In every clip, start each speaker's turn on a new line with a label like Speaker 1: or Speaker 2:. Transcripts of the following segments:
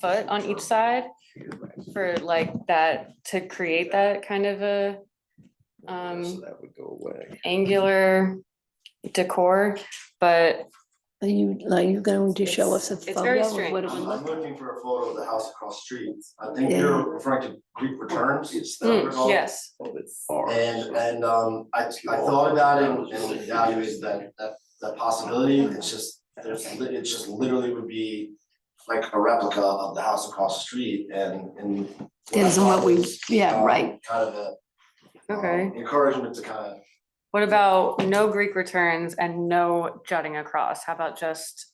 Speaker 1: foot on each side for like that, to create that kind of a um,
Speaker 2: So that would go away.
Speaker 1: angular decor, but
Speaker 3: Are you, are you going to show us a
Speaker 1: It's- it's very
Speaker 3: photo of what it would
Speaker 4: I'm I'm
Speaker 3: look?
Speaker 4: looking for a photo of the house across the street. I think
Speaker 3: Yeah.
Speaker 4: you're referring to Greek returns.
Speaker 2: It's
Speaker 4: that
Speaker 1: mm,
Speaker 4: what it's called?
Speaker 1: yes,
Speaker 4: And, and, um, I, I thought about it and- and evaluated that, that, that possibility. It's just, there's, li- it just literally would be like a replica of the house across the street and, and. what I
Speaker 3: Depends on what
Speaker 4: thought
Speaker 3: we,
Speaker 4: was,
Speaker 3: yeah,
Speaker 4: um,
Speaker 3: right.
Speaker 4: Kind of a. um,
Speaker 1: okay.
Speaker 4: Encouragement to kind of,
Speaker 1: What about no Greek returns and no jutting across? How about just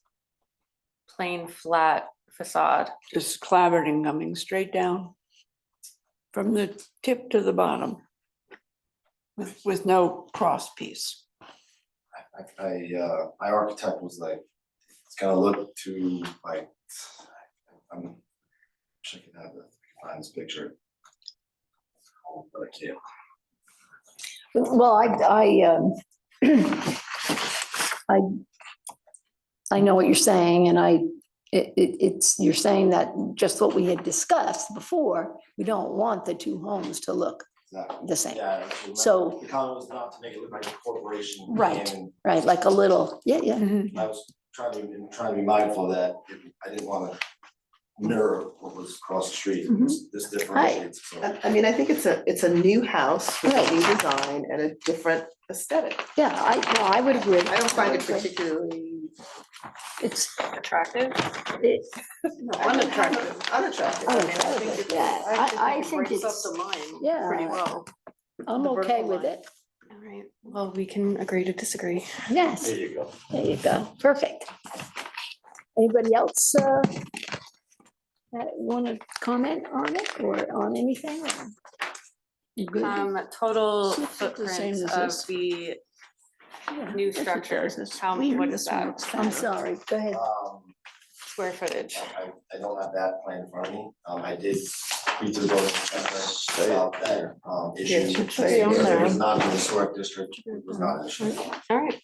Speaker 1: plain flat facade?
Speaker 5: just clavering coming straight down from the tip to the bottom with, with no cross piece.
Speaker 4: I, I, uh, my architect was like, it's gonna look too like, I'm. Wish I could have the, find this picture. But I can't.
Speaker 3: Well, I, I, um, I, I know what you're saying and I, it, it, it's, you're saying that just what we had discussed before, we don't want the two homes to look
Speaker 4: Exactly.
Speaker 3: the same,
Speaker 4: Yeah. it's not-
Speaker 3: So-
Speaker 4: The comment was not to make it look like a corporation.
Speaker 3: Right.
Speaker 4: and
Speaker 3: right? Like a little, yeah, yeah.
Speaker 4: I was trying to, and trying to be mindful of that if- I didn't wanna mirror what was across the street,
Speaker 3: Mm-hmm.
Speaker 4: this, this differentiates. so.
Speaker 6: I I mean, I think it's a, it's a new house with
Speaker 3: Right.
Speaker 6: a new design and a different aesthetic.
Speaker 3: Yeah, I, no, I would agree.
Speaker 6: I don't find it
Speaker 3: would agree.
Speaker 6: particularly
Speaker 3: It's,
Speaker 1: Attractive?
Speaker 3: it,
Speaker 6: unattractive, unattractive. I mean, I think
Speaker 3: Unattractive,
Speaker 6: it-
Speaker 3: yeah. I- I think
Speaker 6: breaks
Speaker 3: it's-
Speaker 6: up the line
Speaker 3: yeah.
Speaker 6: pretty well.
Speaker 3: I'm
Speaker 6: The
Speaker 3: okay
Speaker 6: vertical
Speaker 3: with
Speaker 6: line.
Speaker 3: it.
Speaker 1: All right, well, we can agree to disagree.
Speaker 3: Yes.
Speaker 2: There you go.
Speaker 3: There you go, perfect. Anybody else uh, that want to comment on it or on anything? or-
Speaker 5: You good?
Speaker 1: Um, total
Speaker 5: Should look the same
Speaker 1: footprint
Speaker 5: as
Speaker 1: of
Speaker 5: this.
Speaker 1: the
Speaker 5: Yeah,
Speaker 1: new
Speaker 5: yes, it
Speaker 1: structure,
Speaker 5: does. It's
Speaker 1: how,
Speaker 5: weird.
Speaker 1: what is
Speaker 5: This one
Speaker 1: that,
Speaker 5: looks
Speaker 3: I'm
Speaker 5: better.
Speaker 3: sorry, go ahead.
Speaker 4: Um,
Speaker 1: square footage?
Speaker 4: I, I don't have that plan in front of me, um, I did read through those. About that, um,
Speaker 6: Yeah, it
Speaker 4: issue,
Speaker 6: should say
Speaker 4: saying
Speaker 6: on
Speaker 4: that it
Speaker 6: there.
Speaker 4: was not in the historic district, it was not an issue.
Speaker 1: All right,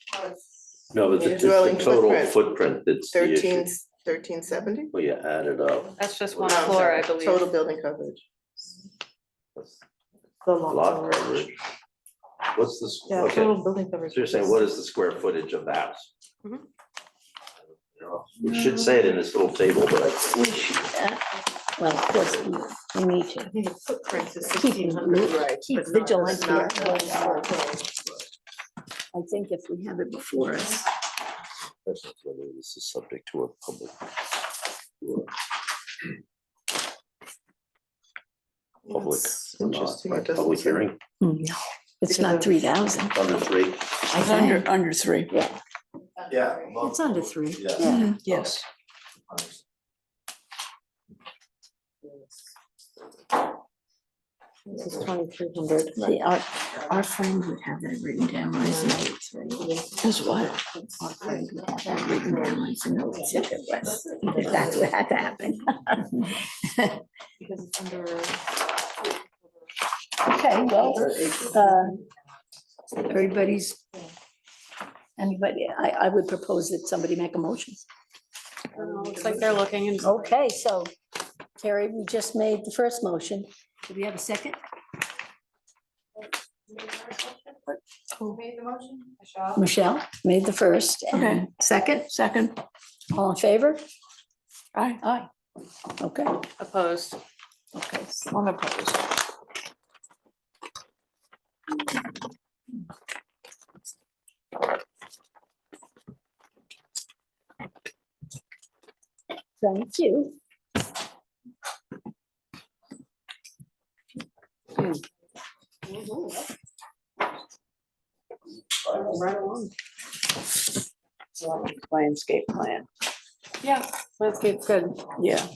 Speaker 2: No, it's
Speaker 6: Your
Speaker 2: it's the
Speaker 6: dwelling
Speaker 2: total
Speaker 6: footprint.
Speaker 2: footprint that's the issue.
Speaker 6: Thirteen, thirteen seventy?
Speaker 2: Well, you add it up,
Speaker 1: that's just one floor, I believe.
Speaker 6: Total building coverage. The lot
Speaker 2: lot
Speaker 6: coverage.
Speaker 2: coverage. What's the, s-
Speaker 6: Yeah,
Speaker 2: okay,
Speaker 6: total building coverage.
Speaker 2: so you're saying, what is the square footage of the house?
Speaker 6: Mm-hmm.
Speaker 1: Mhm.
Speaker 2: You know, We should say it in this little table, but I
Speaker 3: We should, uh, Well, of course, we- we need to.
Speaker 6: I think the footprint is
Speaker 3: Keep
Speaker 6: sixteen hundred, right?
Speaker 3: keep
Speaker 6: but not-
Speaker 3: vigilant
Speaker 6: not
Speaker 3: here.
Speaker 6: the square footage.
Speaker 3: I think if we have it before us,
Speaker 2: That's not whether this is subject to a public. Public
Speaker 6: That's
Speaker 2: or not,
Speaker 6: Interesting,
Speaker 2: right?
Speaker 6: it doesn't
Speaker 2: Public
Speaker 6: say.
Speaker 2: hearing,
Speaker 3: no, it's not three thousand.
Speaker 2: under three,
Speaker 3: I
Speaker 5: It's
Speaker 3: think
Speaker 5: under, under three.
Speaker 3: Yeah,
Speaker 4: Yeah.
Speaker 3: it's under three.
Speaker 4: Yeah.
Speaker 3: Yeah,
Speaker 5: Yes.
Speaker 3: this is twenty-three hundred. See, our, our friend would have that written down, I see.
Speaker 5: Is what?
Speaker 3: Our friend would have that written down, I see, no, it's if it was, if that's what had to happen.
Speaker 6: Because it's under.
Speaker 3: Okay, well, uh, everybody's, anybody, I, I would propose that somebody make a motion.
Speaker 1: Looks Oh, like they're looking and.
Speaker 3: Okay, so Terry, we just made the first motion. Do we have a second? Michelle made the first
Speaker 5: Okay.
Speaker 3: and second,
Speaker 5: Second,
Speaker 3: all in favor?
Speaker 5: I,
Speaker 3: Aye. Okay,
Speaker 1: Opposed.
Speaker 3: okay. so-
Speaker 5: one opposed.
Speaker 3: Thank you.
Speaker 5: Landscape plan,
Speaker 1: Yeah, landscape's good.
Speaker 5: yeah.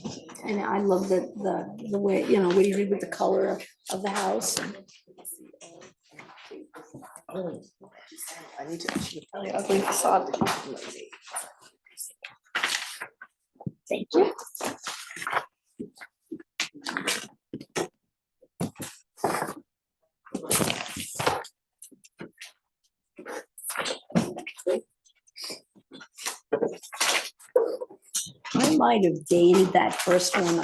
Speaker 3: And I love the, the, the way, you know, what you did with the color of, of the house.
Speaker 6: I need to. Ugly facade.
Speaker 3: Thank you. I I might have dated that first one